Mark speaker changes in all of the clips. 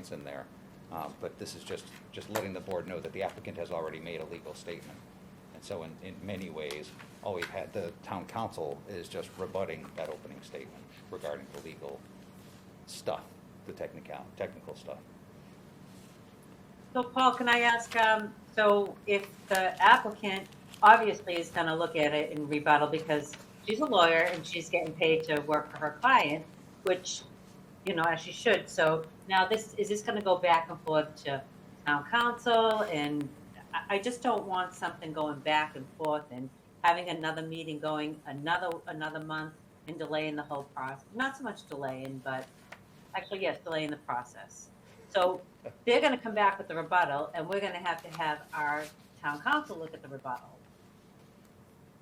Speaker 1: it's in there. Um, But this is just, just letting the board know that the applicant has already made a legal statement. And so in, in many ways, all we've had, the town council is just rebutting that opening statement regarding the legal stuff, the technical, technical stuff.
Speaker 2: So Paul, can I ask, um, so if the applicant obviously is gonna look at it in rebuttal because she's a lawyer and she's getting paid to work for her client, which, you know, as she should, so now this, is this gonna go back and forth to town council and I, I just don't want something going back and forth and having another meeting going another, another month and delaying the whole process, not so much delaying, but actually, yes, delaying the process. So they're gonna come back with the rebuttal, and we're gonna have to have our town council look at the rebuttal.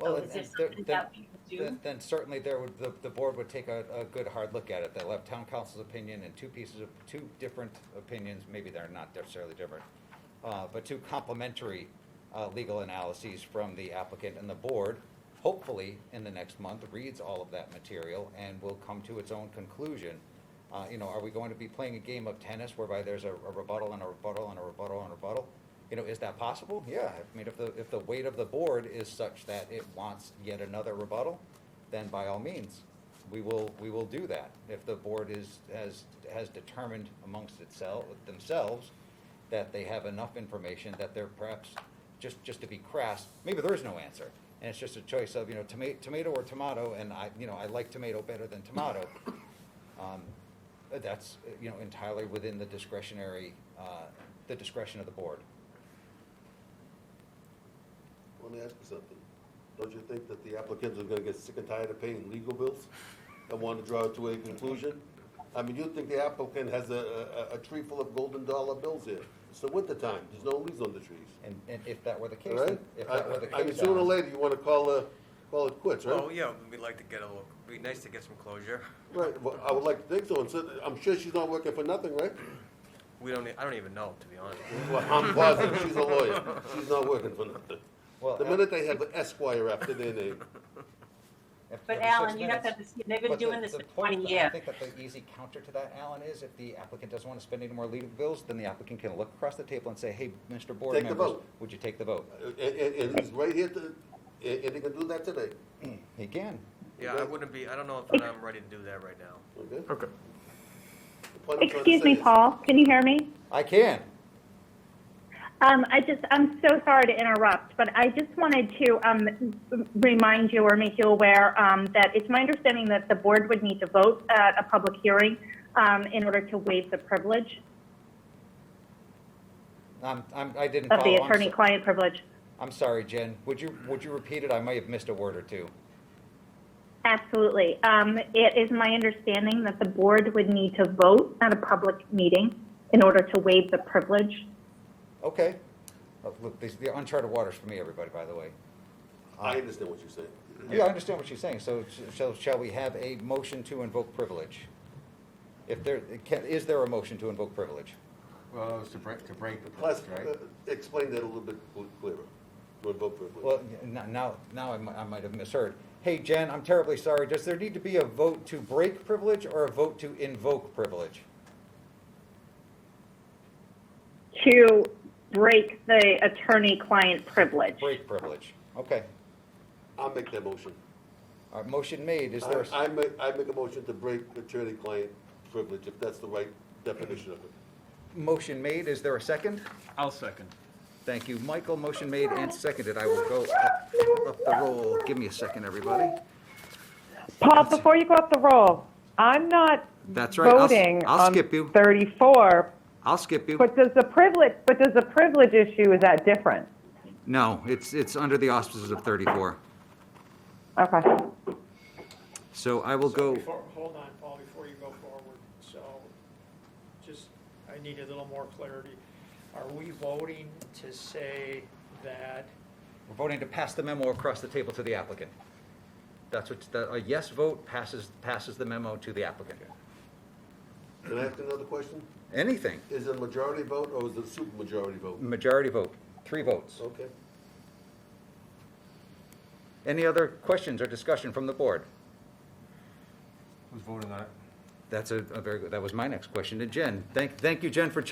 Speaker 2: So Oh, is there something that we can do?
Speaker 1: Then, then certainly there would, the, the board would take a, a good hard look at it. They'll have town council's opinion and two pieces of, two different opinions, maybe they're not necessarily different, uh, but two complementary, uh, legal analyses from the applicant and the board. Hopefully, in the next month, reads all of that material and will come to its own conclusion. Uh, you know, are we going to be playing a game of tennis whereby there's a a rebuttal and a rebuttal and a rebuttal and a rebuttal? You know, is that possible? Yeah, I mean, if the, if the weight of the board is such that it wants yet another rebuttal, then by all means, we will, we will do that. If the board is, has, has determined amongst itself, themselves, that they have enough information that they're perhaps, just, just to be crass, maybe there is no answer. And it's just a choice of, you know, tomato, tomato or tomato, and I, you know, I like tomato better than tomato. Um, That's, you know, entirely within the discretionary, uh, the discretion of the board.
Speaker 3: Let me ask you something. Don't you think that the applicants are gonna get sick and tired of paying legal bills and want to draw it to a conclusion? I mean, you think the applicant has a, a, a tree full of golden dollar bills here. It's the winter time, there's no leaves on the trees,
Speaker 1: And, and if that were the
Speaker 3: all
Speaker 1: case,
Speaker 3: right?
Speaker 1: if
Speaker 3: I-
Speaker 1: that were the
Speaker 3: I mean,
Speaker 1: case, uh,
Speaker 3: sooner or
Speaker 1: Alan,
Speaker 3: later, you wanna call, uh, call it quits,
Speaker 4: Well,
Speaker 3: right?
Speaker 4: yeah, we'd like to get a little, it'd be nice to get some closure.
Speaker 3: Right, well, I would like to think so, and so, I'm sure she's not working for nothing, right?
Speaker 4: We don't, e- I don't even know, to be honest.
Speaker 3: Well, I'm positive, she's a lawyer, she's not working for nothing.
Speaker 1: Well, uh,
Speaker 3: The
Speaker 1: Al-
Speaker 3: minute they have an Esquire after their name,
Speaker 1: if-
Speaker 2: But
Speaker 1: every
Speaker 2: Alan,
Speaker 1: six
Speaker 2: you have to,
Speaker 1: minutes-
Speaker 2: understand, they've been
Speaker 1: but the-
Speaker 2: doing this
Speaker 1: the
Speaker 2: for
Speaker 1: point
Speaker 2: twenty
Speaker 1: that I
Speaker 2: years.
Speaker 1: think that the easy counter to that, Alan, is if the applicant doesn't want to spend any more legal bills, then the applicant can look across the table and say, hey, Mr. Board
Speaker 3: Take the
Speaker 1: members,
Speaker 3: vote.
Speaker 1: would you take the vote?
Speaker 3: and, and, and he's right here to, and, and they can do that today,
Speaker 1: He can.
Speaker 4: Yeah, I wouldn't be, I don't know if I'm ready to do that right now.
Speaker 3: okay?
Speaker 5: Okay.
Speaker 3: The point I'm trying to
Speaker 6: Excuse
Speaker 3: say
Speaker 6: me,
Speaker 3: is-
Speaker 6: Paul, can you hear me?
Speaker 1: I can.
Speaker 6: Um, I just, I'm so sorry to interrupt, but I just wanted to um, remind you or make you aware um, that it's my understanding that the board would need to vote at a public hearing um, in order to waive the privilege
Speaker 1: I'm, I'm, I didn't follow.
Speaker 6: of the
Speaker 1: I'm so-
Speaker 6: attorney-client privilege.
Speaker 1: I'm sorry, Jen. Would you, would you repeat it? I might have missed a word or two.
Speaker 6: Absolutely. Um, it is my understanding that the board would need to vote at a public meeting in order to waive the privilege.
Speaker 1: Okay. Oh, Look, these, the uncharted waters for me, everybody, by the way.
Speaker 3: I understand what you're saying.
Speaker 1: Yeah, I understand what you're saying. So sh- shall, shall we have a motion to invoke privilege? If there, can, is there a motion to invoke privilege?
Speaker 7: Well, it was to break, to break the
Speaker 3: Plus,
Speaker 7: post,
Speaker 3: uh,
Speaker 7: right?
Speaker 3: explain that a little bit cl- clearer. Would vote privilege.
Speaker 1: Well, n- now, now I might, I might have misheard. Hey, Jen, I'm terribly sorry. Does there need to be a vote to break privilege or a vote to invoke privilege?
Speaker 6: To break the attorney-client privilege.
Speaker 1: Break privilege. Okay.
Speaker 3: I'll make that motion.
Speaker 1: All right, motion made. Is there, a s-
Speaker 3: I, I make, I make a motion to break attorney-client privilege, if that's the right definition of it.
Speaker 1: motion made? Is there a second?
Speaker 5: I'll second.
Speaker 1: Thank you, Michael. Motion made and seconded. I will go up, up the roll. Give me a second, everybody.
Speaker 8: Paul, before you go up the roll, I'm not
Speaker 1: That's right. I'll s-
Speaker 8: voting
Speaker 1: I'll
Speaker 8: on
Speaker 1: skip you.
Speaker 8: 34,
Speaker 1: I'll skip you.
Speaker 8: but does the privilege, but does the privilege issue, is that different?
Speaker 1: No, it's, it's under the auspices of 34.
Speaker 8: Okay.
Speaker 1: So I will
Speaker 9: So
Speaker 1: go,
Speaker 9: before- Hold on, Paul, before you go forward, so, just, I need a little more clarity. Are we voting to say that,
Speaker 1: we're voting to pass the memo across the table to the applicant. That's what, the- a yes vote passes, passes the memo to the applicant.
Speaker 3: Can I ask another question?
Speaker 1: Anything,
Speaker 3: Is it a majority vote or is it a supermajority vote?
Speaker 1: majority vote, three votes.
Speaker 3: Okay.
Speaker 1: Any other questions or discussion from the board?
Speaker 7: Who's voting on it?
Speaker 1: That's a a very good, that was my next question to Jen. Thank, thank you, Jen, for